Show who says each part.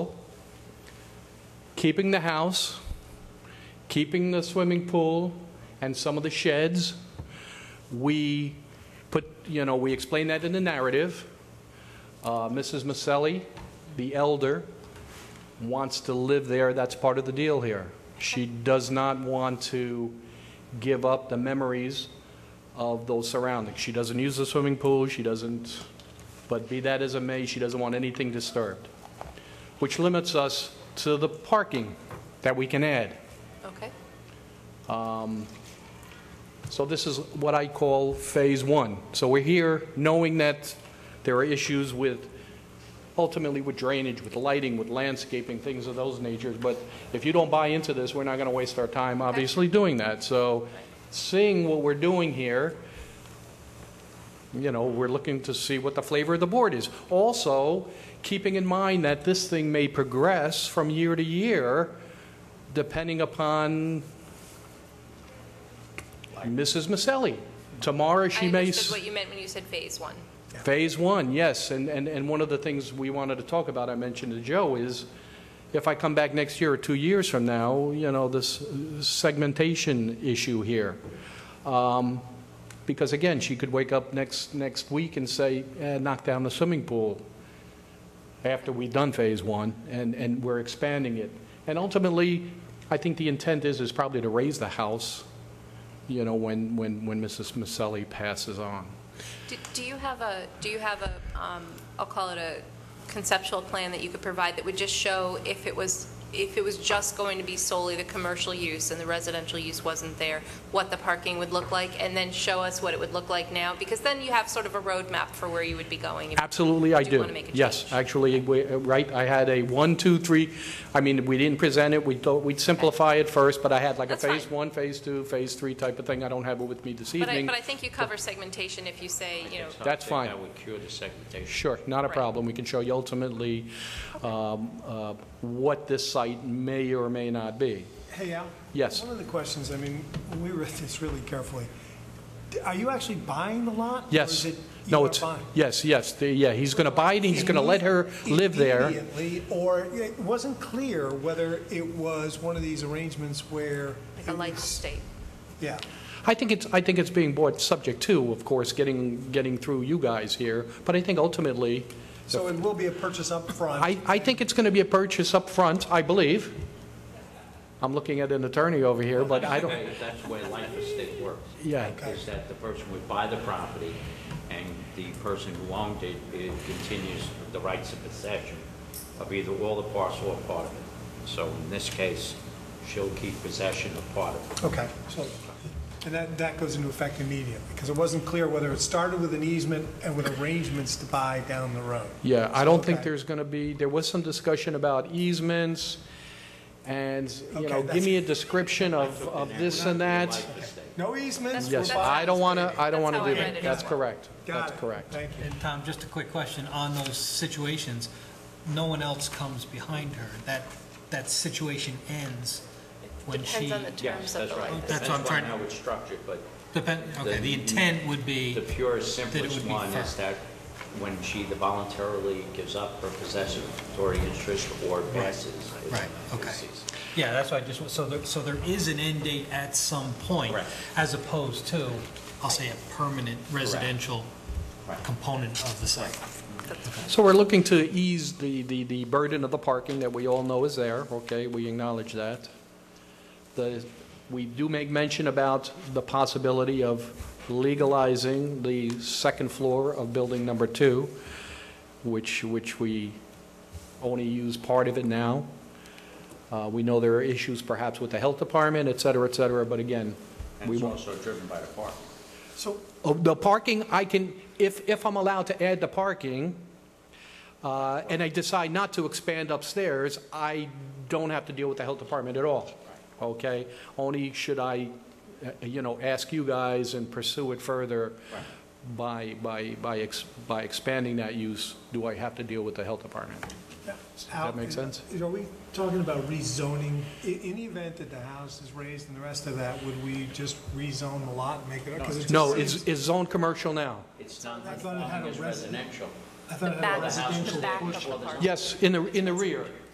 Speaker 1: keeping the house, keeping the swimming pool and some of the sheds. We put, you know, we explain that in the narrative. Uh, Mrs. Maselli, the elder, wants to live there. That's part of the deal here. She does not want to give up the memories of those surroundings. She doesn't use the swimming pool, she doesn't, but be that as it may, she doesn't want anything disturbed, which limits us to the parking that we can add.
Speaker 2: Okay.
Speaker 1: So this is what I call Phase One. So we're here knowing that there are issues with, ultimately with drainage, with lighting, with landscaping, things of those natures, but if you don't buy into this, we're not going to waste our time, obviously, doing that. So seeing what we're doing here, you know, we're looking to see what the flavor of the board is. Also, keeping in mind that this thing may progress from year to year, depending upon Mrs. Maselli. Tomorrow, she
Speaker 2: I
Speaker 1: may... s-
Speaker 2: understood what you meant when you said phase one.
Speaker 1: Phase one, yes, and, and, and one of the things we wanted to talk about, I mentioned to Joe, is if I come back next year or two years from now, you know, this segmentation issue here. Um, Because again, she could wake up next, next week and say, eh, knock down the swimming pool after we've done phase one, and, and we're expanding it. And ultimately, I think the intent is, is probably to raise the house, you know, when, when, when Mrs. Maselli passes on.
Speaker 2: Do- Do you have a, do you have a, um, I'll call it a conceptual plan that you could provide that would just show if it was, if it was just going to be solely the commercial use and the residential use wasn't there, what the parking would look like, and then show us what it would look like now? Because then you have sort of a roadmap for where you would be going. if-
Speaker 1: Absolutely, I
Speaker 2: Do
Speaker 1: do.
Speaker 2: you wanna make a
Speaker 1: Yes,
Speaker 2: change?
Speaker 1: actually, we- right, I had a one, two, three, I mean, we didn't present it, we thought we'd simplify it first, but I had like a
Speaker 2: That's fine.
Speaker 1: phase one, phase two, phase three type of thing. I don't have it with me this
Speaker 2: But I,
Speaker 1: evening.
Speaker 2: but I think you cover segmentation if you say, you know,
Speaker 1: so. That's fine.
Speaker 3: That would cure the segmentation.
Speaker 1: Sure, not a
Speaker 2: Right.
Speaker 1: problem. We can show you ultimately um, uh, what this site may or may not be.
Speaker 4: Hey, Al?
Speaker 1: Yes.
Speaker 4: One of the questions, I mean, we read this really carefully. D- Are you actually buying the lot?
Speaker 1: Yes.
Speaker 4: Or is it
Speaker 1: No,
Speaker 4: you are
Speaker 1: it's
Speaker 4: buying?
Speaker 1: Yes, yes, the- yeah, he's going to buy it, he's going to let her live there.
Speaker 4: Immediately, or it wasn't clear whether it was one of these arrangements where.
Speaker 2: like a
Speaker 4: it
Speaker 2: life
Speaker 4: was-
Speaker 2: state.
Speaker 4: Yeah.
Speaker 1: I think it's, I think it's being bought subject to, of course, getting, getting through you guys here, but I think ultimately,
Speaker 4: So it will be a purchase up front.
Speaker 1: I, I think it's going to be a purchase up front, I believe. I'm looking at an attorney over here, but I don't,
Speaker 3: That's the way life estate works.
Speaker 1: Yeah.
Speaker 3: Is that the person would buy the property, and the person who owned it, it continues the rights of possession of either all the parcel or part of it. So in this case, she'll keep possession of part of it.
Speaker 4: Okay, so, and that, that goes into effect immediately, because it wasn't clear whether it started with an easement and with arrangements to buy down the road.
Speaker 1: yeah, I don't think
Speaker 4: Okay.
Speaker 1: there's going to be, there was some discussion about easements, and, you
Speaker 4: Okay,
Speaker 1: know, give
Speaker 4: that's-
Speaker 1: me a description of, of this and that.
Speaker 3: Life estate.
Speaker 4: No
Speaker 2: That's-
Speaker 4: easements? we're
Speaker 1: Yes,
Speaker 2: that's-
Speaker 4: buying-
Speaker 1: I don't want to, I don't want
Speaker 2: That's
Speaker 1: to
Speaker 2: how I
Speaker 1: do
Speaker 2: read
Speaker 1: that.
Speaker 2: it
Speaker 1: That's
Speaker 2: as well.
Speaker 1: correct.
Speaker 4: Got
Speaker 1: That's
Speaker 4: it.
Speaker 1: correct.
Speaker 4: Thank you.
Speaker 5: And Tom, just a quick question, on those situations, no one else comes behind her, that, that situation ends when she...
Speaker 2: Depends on the terms
Speaker 3: Yes,
Speaker 2: of
Speaker 3: that's
Speaker 2: the
Speaker 3: right.
Speaker 2: life.
Speaker 5: That's what I'm trying
Speaker 3: Depends
Speaker 5: to-
Speaker 3: on how it's structured, but
Speaker 5: Depend, okay, the intent would be,
Speaker 3: the purest,
Speaker 5: That it
Speaker 3: simplest
Speaker 5: would be
Speaker 3: one is
Speaker 5: fair.
Speaker 3: that when she voluntarily gives up her possession or interest or passes. it's-
Speaker 5: Right, okay.
Speaker 3: it's-
Speaker 5: yeah, that's why I just, so there, so there is an end date at some point,
Speaker 3: Correct.
Speaker 5: as opposed to, I'll say, a permanent residential
Speaker 3: Right.
Speaker 5: component of the site.
Speaker 1: So we're looking to ease the, the, the burden of the parking that we all know is there, okay, we acknowledge that. The, we do make mention about the possibility of legalizing the second floor of building number two, which, which we only use part of it now. Uh, we know there are issues perhaps with the health department, et cetera, et cetera, but again,
Speaker 3: And
Speaker 1: we
Speaker 3: it's
Speaker 1: won't.
Speaker 3: also driven by the park.
Speaker 4: So
Speaker 1: Oh, The parking, I can, if, if I'm allowed to add the parking, uh, and I decide not to expand upstairs, I don't have to deal with the health department at all, okay? Only should I, uh, you know, ask you guys and pursue it further by, by, by ex- by expanding that use, do I have to deal with the health department?
Speaker 4: Al,
Speaker 1: that make
Speaker 4: is-
Speaker 1: sense?
Speaker 4: Are we talking about rezoning? I- In the event that the house is raised and the rest of that, would we just rezone the lot and make it? 'cause it just
Speaker 1: No,
Speaker 4: seems-
Speaker 1: it's, it's zoned commercial now.
Speaker 3: It's not
Speaker 4: I thought it had
Speaker 3: conforming
Speaker 4: a
Speaker 3: as
Speaker 4: resident-
Speaker 3: residential.
Speaker 4: I thought
Speaker 2: The
Speaker 4: it had a
Speaker 2: back- the
Speaker 4: residential
Speaker 2: back of the
Speaker 4: portion.
Speaker 2: parcel.
Speaker 1: Yes, in the, in the rear.